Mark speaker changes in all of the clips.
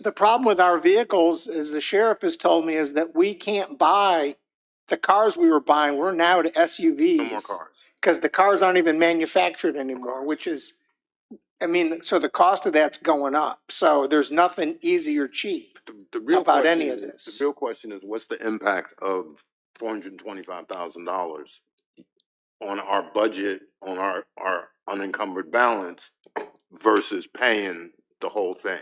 Speaker 1: the problem with our vehicles, as the sheriff has told me, is that we can't buy the cars we were buying. We're now to SUVs.
Speaker 2: No more cars.
Speaker 1: Because the cars aren't even manufactured anymore, which is, I mean, so the cost of that's going up. So there's nothing easy or cheap.
Speaker 2: The- The real
Speaker 1: about
Speaker 2: question
Speaker 1: any of
Speaker 2: is-
Speaker 1: this.
Speaker 2: The real question is, what's the impact of four hundred and twenty-five thousand dollars on our budget, on our, our unencumbered balance versus paying the whole thing?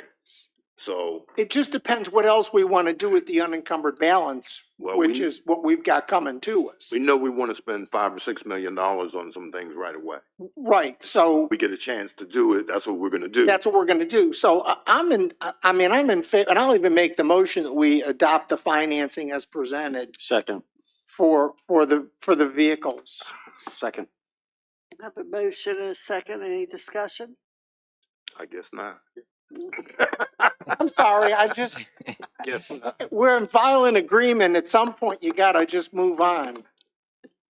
Speaker 2: So,
Speaker 1: It just depends what else we want to do with the unencumbered balance,
Speaker 2: well,
Speaker 1: which
Speaker 2: we,
Speaker 1: is what we've got coming to us.
Speaker 2: we know we wanna spend five or six million dollars on some things right away.
Speaker 1: Right, so
Speaker 2: We get a chance to do it, that's what we're gonna do.
Speaker 1: that's what we're gonna do. So I- I'm in, I- I mean, I'm in favor, and I'll even make the motion that we adopt the financing as presented
Speaker 3: Second,
Speaker 1: for, for the, for the vehicles.
Speaker 3: second.
Speaker 4: Have a motion and a second, any discussion?
Speaker 2: I guess not.
Speaker 1: I'm sorry, I just,
Speaker 2: Guess not.
Speaker 1: we're in violent agreement. At some point, you gotta just move on.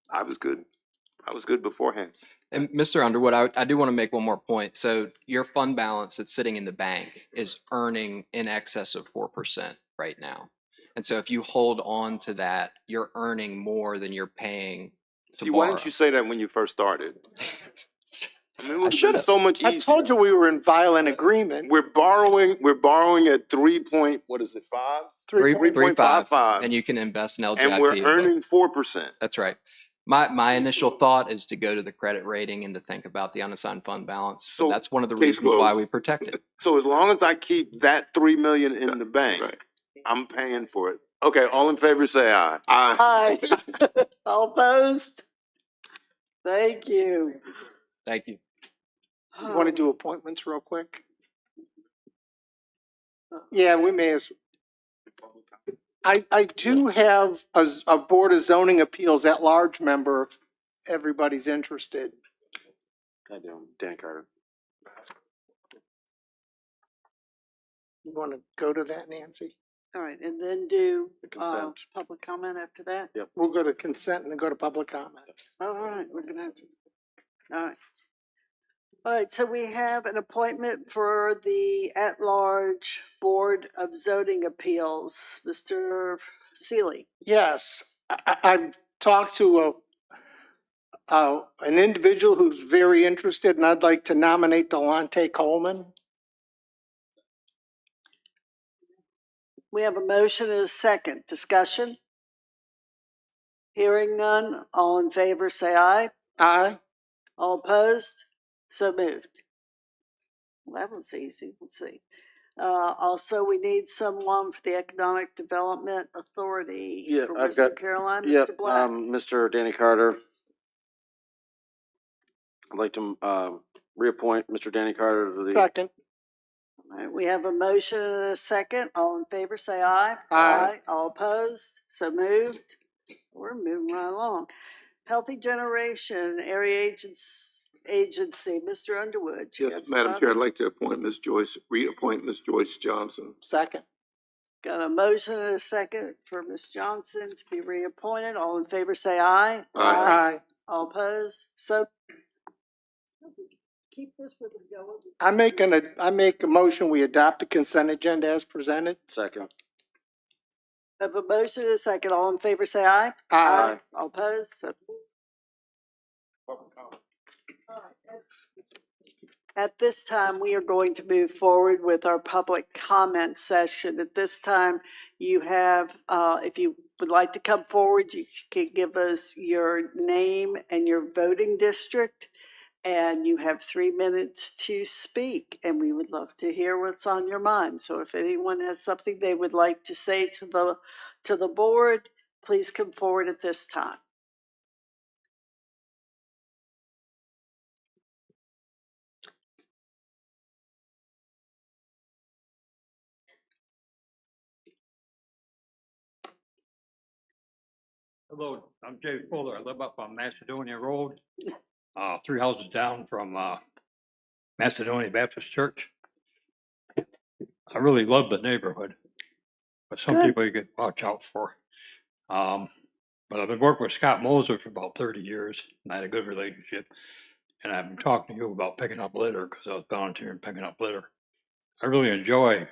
Speaker 2: I was good. I was good beforehand.
Speaker 5: And Mr. Underwood, I, I do want to make one more point. So your fund balance that's sitting in the bank is earning in excess of 4% right now. And so if you hold on to that, you're earning more than you're paying. to
Speaker 2: See, why didn't
Speaker 5: borrow.
Speaker 2: you say that when you first started? I mean, it would have been
Speaker 5: should've.
Speaker 2: so much easier.
Speaker 1: I told you we were in violent agreement.
Speaker 2: We're borrowing, we're borrowing at three point, what is it, five?
Speaker 5: Three-
Speaker 2: Three point five
Speaker 5: 3.55,
Speaker 2: five,
Speaker 5: And you can invest in LGIP.
Speaker 2: and we're
Speaker 5: and look-
Speaker 2: earning four percent.
Speaker 5: That's right. My, my initial thought is to go to the credit rating and to think about the unassigned fund balance.
Speaker 2: So,
Speaker 5: But that's one of the
Speaker 2: case
Speaker 5: reasons why
Speaker 2: closed.
Speaker 5: we protect it.
Speaker 2: So as long as I keep that three million in the bank,
Speaker 6: right.
Speaker 2: I'm paying for it. Okay, all in favor, say aye.
Speaker 6: I
Speaker 4: Aye. All opposed? Thank you.
Speaker 5: Thank you.
Speaker 1: You wanna do appointments real quick? Uh, Yeah, we may as. I, I do have a, z- a Board of Zoning Appeals at-large member if everybody's interested.
Speaker 3: I do. Dan Carter.
Speaker 1: You wanna go to that, Nancy?
Speaker 4: All right, and then do,
Speaker 3: The
Speaker 4: uh,
Speaker 3: consent.
Speaker 4: public comment after that?
Speaker 1: We'll go to consent and then go to public comment.
Speaker 4: All right, we're gonna have to, all right. All right, so we have an appointment for the at-large Board of Zoning Appeals, Mr. Seeley.
Speaker 1: Yes, I, I- I've talked to a, uh, an individual who's very interested and I'd like to nominate Delonte Coleman.
Speaker 4: We have a motion and a second. Discussion? Hearing none, all in favor, say aye.
Speaker 1: Aye.
Speaker 4: All opposed? So moved. Well, that was easy. Let's see. Uh, also, we need someone for the Economic Development Authority.
Speaker 3: Yeah,
Speaker 4: for
Speaker 3: I've
Speaker 4: Western
Speaker 3: got-
Speaker 4: Carolina, Mr.
Speaker 3: Yep,
Speaker 4: Black.
Speaker 3: um, Mr. Danny Carter. I'd like to, um, reappoint Mr. Danny Carter to the
Speaker 1: Second.
Speaker 4: All right, We have a motion and a second. All in favor, say aye.
Speaker 1: Aye.
Speaker 4: All opposed? So moved. We're moving right along. Healthy Generation Area Agents, Agency, Mr. Underwood. you got
Speaker 6: Yes,
Speaker 4: some
Speaker 6: Madam Chair, I'd
Speaker 4: other-
Speaker 6: like to appoint Ms. Joyce, reappoint Ms. Joyce Johnson.
Speaker 1: Second.
Speaker 4: Got a motion and a second for Ms. Johnson to be reappointed. All in favor, say aye.
Speaker 6: Aye.
Speaker 1: Aye.
Speaker 4: All opposed? So. Keep this with the going.
Speaker 1: I make an, I make a motion, we adopt the consent agenda as presented.
Speaker 3: second.
Speaker 4: Have a motion and a second. All in favor, say aye.
Speaker 1: Aye.
Speaker 4: All opposed? So. At this time, we are going to move forward with our public comment session. At this time, you have, uh, if you would like to come forward, you can give us your name and your voting district. And you have three minutes to speak, and we would love to hear what's on your mind. So if anyone has something they would like to say to the, to the board, please come forward at this time.
Speaker 7: Hello, I'm Jay Fuller. I live up on Macedonia Road, uh, three houses down from, uh, Macedonia Baptist Church. I really love the neighborhood, but some
Speaker 4: Good.
Speaker 7: people you could watch out for. Um, but I've been working with Scott Moser for about thirty years and I had a good relationship. And I've been talking to you about picking up litter because I was volunteering picking up litter. I really enjoy